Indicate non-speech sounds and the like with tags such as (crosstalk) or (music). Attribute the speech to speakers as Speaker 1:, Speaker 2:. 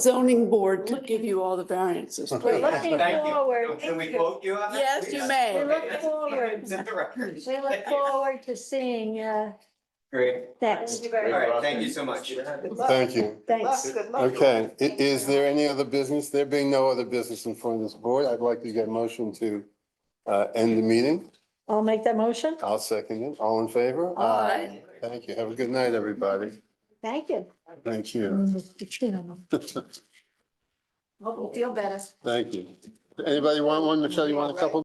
Speaker 1: zoning board to give you all the variances,
Speaker 2: We're
Speaker 1: please.
Speaker 2: looking
Speaker 3: Thank you.
Speaker 2: forward.
Speaker 3: Can we quote you on that?
Speaker 1: Yes, you may.
Speaker 2: We look
Speaker 3: Okay.
Speaker 2: forward.
Speaker 3: Set the record.
Speaker 2: We look forward to seeing uh,
Speaker 3: Great.
Speaker 2: that.
Speaker 3: All right, thank you so much.
Speaker 4: Thank you.
Speaker 2: Thanks.
Speaker 4: Okay, i- is there any other business? There being no other business in front of this board, I'd like to get a motion to uh, end the meeting.
Speaker 2: I'll make that motion.
Speaker 4: I'll second it. All in favor?
Speaker 1: Aye.
Speaker 4: Thank you. Have a good night, everybody.
Speaker 2: Thank you.
Speaker 4: Thank you. (laughs)
Speaker 2: Hope you feel better.
Speaker 4: Thank you. Anybody want one? Michelle, you want a couple?